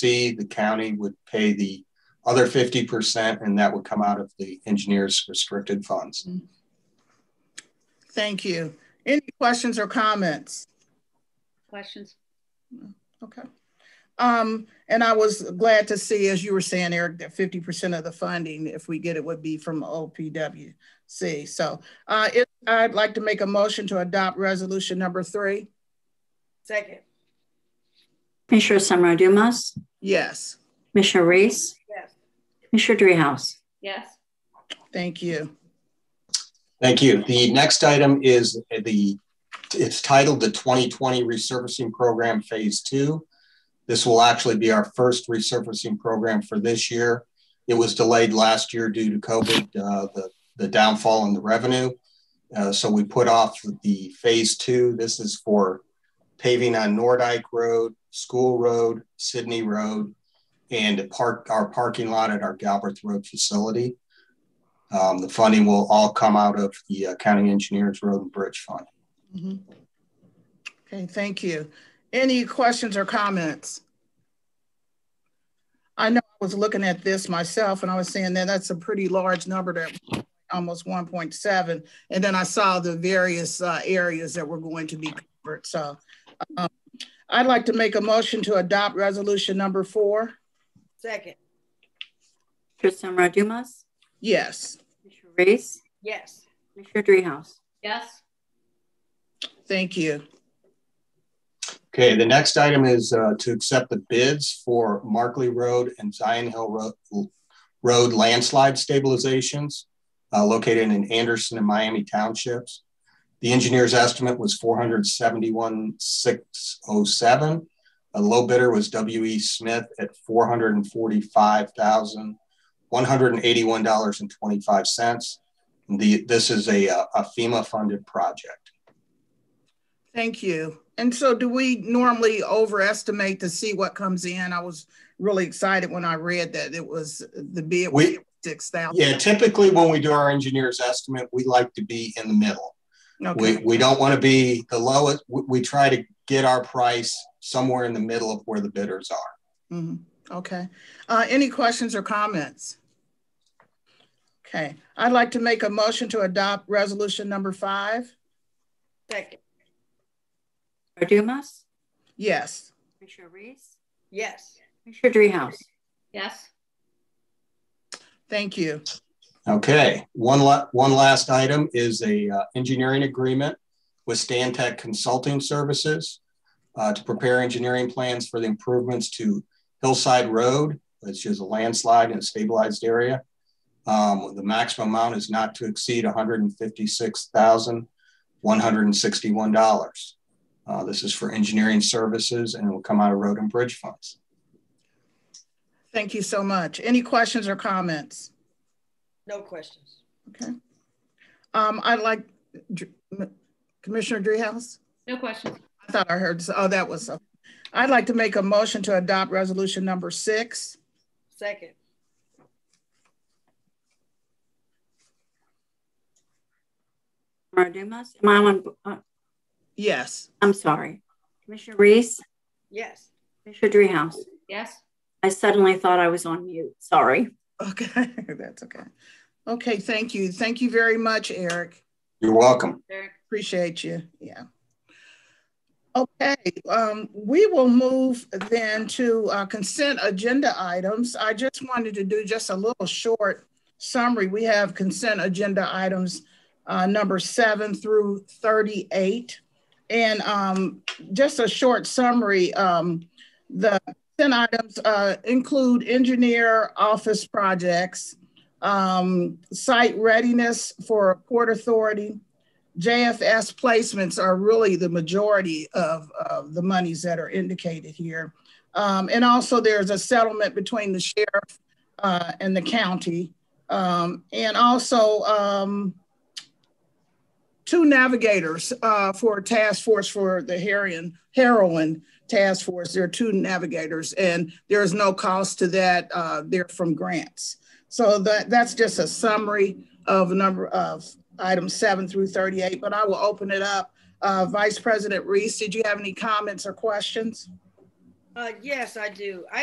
fee, the county would pay the other 50%, and that would come out of the engineers' restricted funds. Thank you. Any questions or comments? Questions? Okay. Um, and I was glad to see, as you were saying, Eric, that 50% of the funding, if we get it, would be from OPWC. So uh, if, I'd like to make a motion to adopt resolution number three. Second. Commissioner Summer Dumas, Yes, Commissioner Reese, Yes. Commissioner Dreehouse. Yes. thank you. Thank you. The next item is the, it's titled the 2020 Resurfacing Program Phase Two. This will actually be our first resurfacing program for this year. It was delayed last year due to COVID, uh, the, the downfall in the revenue. Uh, so we put off the phase two. This is for paving on Nordyke Road, School Road, Sydney Road, and park, our parking lot at our Galbraith Road facility. Um, the funding will all come out of the uh, County Engineers Road and Bridge Fund. Mhm. Okay, thank you. Any questions or comments? I know I was looking at this myself and I was saying that that's a pretty large number that almost 1.7. And then I saw the various uh, areas that were going to be covered. So um, I'd like to make a motion to adopt resolution number four. Second. Commissioner Summer Dumas, Yes, Commissioner Reese, Yes. Commissioner Dreehouse. Yes. thank you. Okay, the next item is uh, to accept the bids for Markley Road and Zion Hill Ro- Road landslide stabilizations uh, located in Anderson and Miami Townships. The engineer's estimate was 471,607. A low bidder was W.E. Smith at $445,181.25. The, this is a, uh, a FEMA-funded project. Thank you. And so do we normally overestimate to see what comes in? I was really excited when I read that it was the bid was We- six thousand. Yeah, typically when we do our engineer's estimate, we like to be in the middle. We, Okay, we don't want to be the lowest. We, we try to get our price somewhere in the middle of where the bidders are. Mhm. okay. Uh, any questions or comments? Okay, I'd like to make a motion to adopt resolution number five. Second. Commissioner Dumas, Yes, Commissioner Reese, Yes. Commissioner Dreehouse. Yes. thank you. Okay. One, la- one last item is a uh, engineering agreement with Stantec Consulting Services uh, to prepare engineering plans for the improvements to Hillside Road, which is a landslide in a stabilized area. Um, the maximum amount is not to exceed $156,161. Uh, this is for engineering services and it will come out of road and bridge funds. Thank you so much. Any questions or comments? No questions. Okay. Um, I'd like Dr- Commissioner Dreehouse? No questions. I thought I heard, oh, that was, a- I'd like to make a motion to adopt resolution number six. Second. Summer Dumas, am I on? uh, Yes, I'm sorry. Commissioner Reese, Yes. Commissioner Dreehouse. Yes. I suddenly thought I was on mute. Sorry. okay, that's okay. Okay, thank you. Thank you very much, Eric. You're welcome. Eric. Appreciate you, yeah. Okay, um, we will move then to uh, consent agenda items. I just wanted to do just a little short summary. We have consent agenda items uh, number seven through 38. And um, just a short summary, um, the consent items uh, include engineer office projects, um, site readiness for Port Authority, JFS placements are really the majority of, of the monies that are indicated here. Um, and also there's a settlement between the sheriff uh, and the county. Um, and also um, two navigators uh, for a task force for the heroin, heroin task force. There are two navigators and there is no cost to that. Uh, they're from grants. So that, that's just a summary of a number of items seven through 38, but I will open it up. Uh, Vice President Reese, did you have any comments or questions? Uh, yes, I do. I